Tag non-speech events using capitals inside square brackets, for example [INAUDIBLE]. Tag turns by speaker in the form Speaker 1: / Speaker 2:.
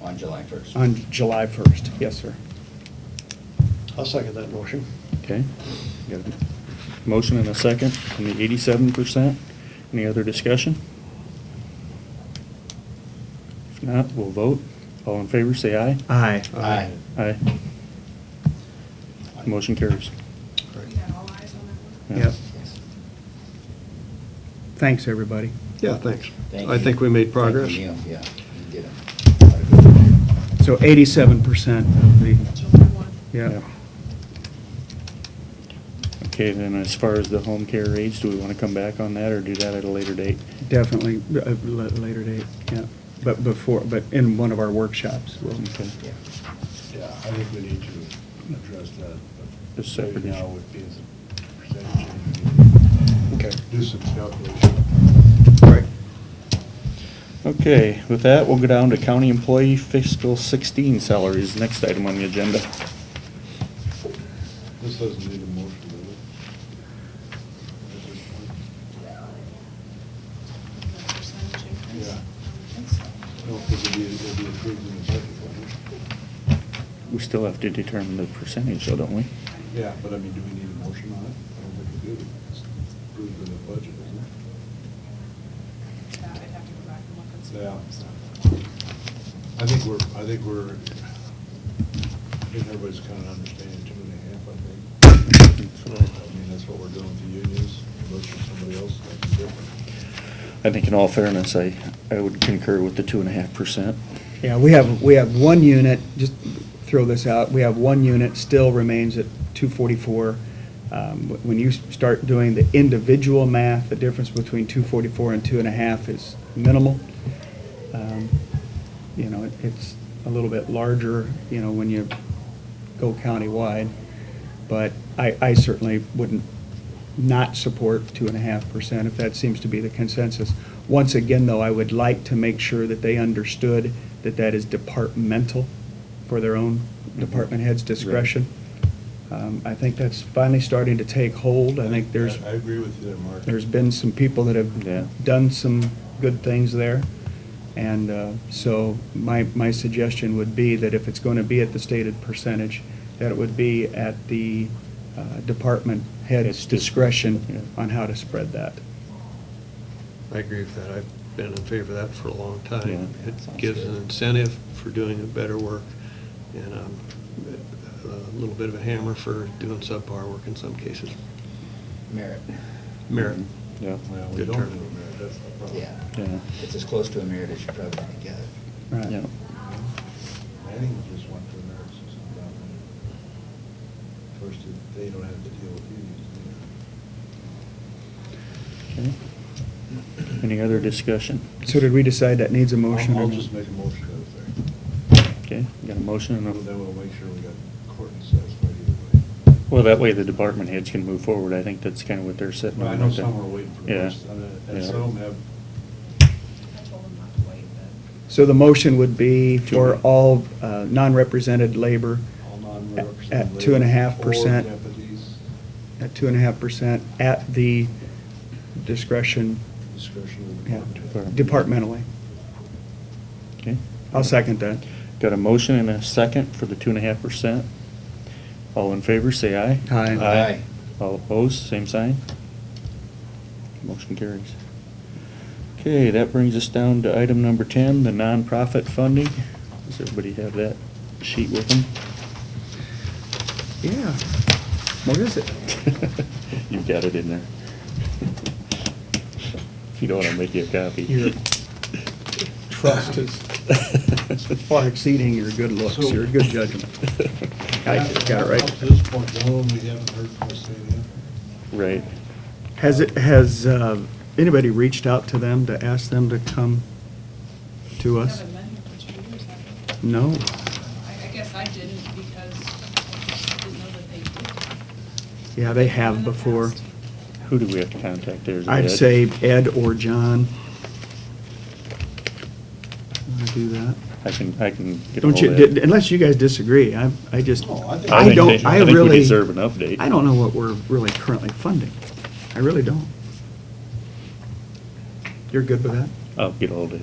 Speaker 1: on July 1st.
Speaker 2: on July 1st. Yes, sir.
Speaker 3: I'll second that motion.
Speaker 4: Okay. Got a Motion and a second on the eighty-seven percent. Any other discussion? If not, we'll vote. All in favor, say aye.
Speaker 2: Aye.
Speaker 1: Aye.
Speaker 3: uh,
Speaker 4: Aye. Motion carries.
Speaker 5: We got all eyes on that one?
Speaker 4: Yeah.
Speaker 2: Yep. Thanks, everybody.
Speaker 3: Yeah, thanks.
Speaker 1: Thank
Speaker 3: I
Speaker 1: you.
Speaker 3: think we made
Speaker 1: Thank
Speaker 3: progress.
Speaker 1: you, Neil. Yeah, you did a lot of good work.
Speaker 2: So 87% of the,
Speaker 5: July 1.
Speaker 2: yeah.
Speaker 4: Okay, then as far as the home care aides, do we want to come back on that or do that at a later date?
Speaker 2: Definitely, uh, la- later date, yeah, but before, but in one of our workshops, we'll,
Speaker 4: Okay.
Speaker 1: Yeah.
Speaker 6: Yeah, I think we need to address that. but
Speaker 4: Just separate
Speaker 6: maybe Now
Speaker 4: issue.
Speaker 6: would be as a percentage. and
Speaker 2: Okay.
Speaker 6: Do some calculation.
Speaker 3: Right.
Speaker 4: Okay, with that, we'll go down to county employee fiscal sixteen salaries, next item on the agenda.
Speaker 6: This doesn't need a motion, does it? At this
Speaker 5: The percentage increase?
Speaker 6: Yeah.
Speaker 5: I don't think so.
Speaker 6: point? No, because it'll be, it'll be approved in a second, won't
Speaker 4: We still have to determine the percentage though, don't we?
Speaker 6: it? Yeah, but I mean, do we need a motion on it? I don't think we do. It's approved in the budget, isn't it?
Speaker 5: That I'd have to go back and look and see.
Speaker 6: Yeah.
Speaker 5: So,
Speaker 6: I think we're, I think we're, I think everybody's kind of understanding two and a half, I think. I mean, that's what we're doing with the unions, unless there's somebody else that's different.
Speaker 4: I think in all fairness, I, I would concur with the two and a half percent.
Speaker 2: yeah, we have, we have one unit, just throw this out, we have one unit still remains at 244. Um, wh- When you s- start doing the individual math, the difference between 244 and two and a half is minimal. Um, You know, it- it's a little bit larger, you know, when you go countywide, but I, I certainly wouldn't not support two and a half percent if that seems to be the consensus. Once again, though, I would like to make sure that they understood that that is departmental for their own
Speaker 6: Mm-hmm.
Speaker 2: department head's discretion. Um, I think that's finally starting to take hold. I think there's,
Speaker 6: I agree with you there, Mark.
Speaker 2: there's been some people that
Speaker 4: Yeah.
Speaker 2: have done some good things there. And uh, so my, my suggestion would be that if it's going to be at the stated percentage, that it would be at the uh, department head's
Speaker 4: It's dis- yeah.
Speaker 2: discretion on how to spread that.
Speaker 3: I agree with that. I've been in favor of that for a long time.
Speaker 4: Yeah.
Speaker 3: It gives an incentive for doing better work and um, a little bit of a hammer for doing subpar work in some cases.
Speaker 1: Merit,
Speaker 3: Merit.
Speaker 4: Mm-hmm. Yeah.
Speaker 6: Well, we
Speaker 3: Good
Speaker 6: don't
Speaker 3: term.
Speaker 6: do it, Mayor, that's the problem.
Speaker 1: yeah.
Speaker 4: Yeah.
Speaker 1: It's as close to a merit as you probably can get.
Speaker 2: Right.
Speaker 4: Yeah.
Speaker 6: Manning just went to the merit system down there. First, they don't have to deal with unions.
Speaker 4: Okay. Any other discussion?
Speaker 2: So did we decide that needs a
Speaker 6: do they?
Speaker 2: motion? or
Speaker 6: I'll I'll
Speaker 2: not?
Speaker 6: just make a motion out there.
Speaker 4: Okay, got a motion and
Speaker 6: Then
Speaker 4: a,
Speaker 6: we'll make sure we got court satisfied either way.
Speaker 4: well, that way the department heads can move forward. I think that's kind of what they're sitting
Speaker 6: Well,
Speaker 4: on.
Speaker 6: I know
Speaker 4: right there.
Speaker 6: some are waiting for the
Speaker 4: Yeah.
Speaker 6: rest, and uh, and
Speaker 4: Yeah.
Speaker 6: some have,
Speaker 5: I told them not to wait, but
Speaker 2: So the motion would be for
Speaker 4: Two.
Speaker 2: all uh, non-represented labor
Speaker 6: all
Speaker 2: At-
Speaker 6: non-represented.
Speaker 2: at two and a half
Speaker 6: labor
Speaker 2: percent.
Speaker 6: Or deputies
Speaker 2: at two and a half percent at the discretion
Speaker 6: discretion of the
Speaker 2: yeah,
Speaker 6: department.
Speaker 2: departmentally.
Speaker 4: Okay.
Speaker 2: I'll second that.
Speaker 4: Got a motion and a second for the two and a half percent. All in favor, say aye.
Speaker 2: Aye.
Speaker 1: Aye.
Speaker 4: All opposed, same sign. Motion carries. Okay, that brings us down to item number ten, the nonprofit funding. Does everybody have that sheet with them? [LAUGHS]
Speaker 2: Yeah. What is it?
Speaker 4: You've got it in there. If you don't want to make you a copy. [LAUGHS]
Speaker 2: Your trust is far exceeding your good looks, your good judgment. [LAUGHS] I got it right.
Speaker 6: Up to this point, no, we haven't heard from the state yet.
Speaker 4: Right.
Speaker 2: Has it, has uh, anybody reached out to them to ask them to come to
Speaker 5: I
Speaker 2: us?
Speaker 5: haven't been here for two years, have I?
Speaker 2: No.
Speaker 5: I, I guess I didn't because I didn't know that they did.
Speaker 2: Yeah, they
Speaker 5: In
Speaker 2: have
Speaker 5: the
Speaker 2: before.
Speaker 5: past.
Speaker 4: Who do we have to contact there? Is it
Speaker 2: I'd
Speaker 4: Ed?
Speaker 2: say Ed or John. Want to do that?
Speaker 4: I can, I can get
Speaker 2: Don't
Speaker 4: ahold
Speaker 2: you,
Speaker 4: of Ed.
Speaker 2: did- unless you guys disagree, I, I just,
Speaker 6: No, I think-
Speaker 4: I
Speaker 2: Oh, I
Speaker 4: think
Speaker 2: don't,
Speaker 4: they-
Speaker 2: I
Speaker 4: I think we
Speaker 2: really.
Speaker 4: deserve an update.
Speaker 2: I don't know what we're really currently funding. I really don't. You're good with that?
Speaker 4: I'll get ahold of Ed.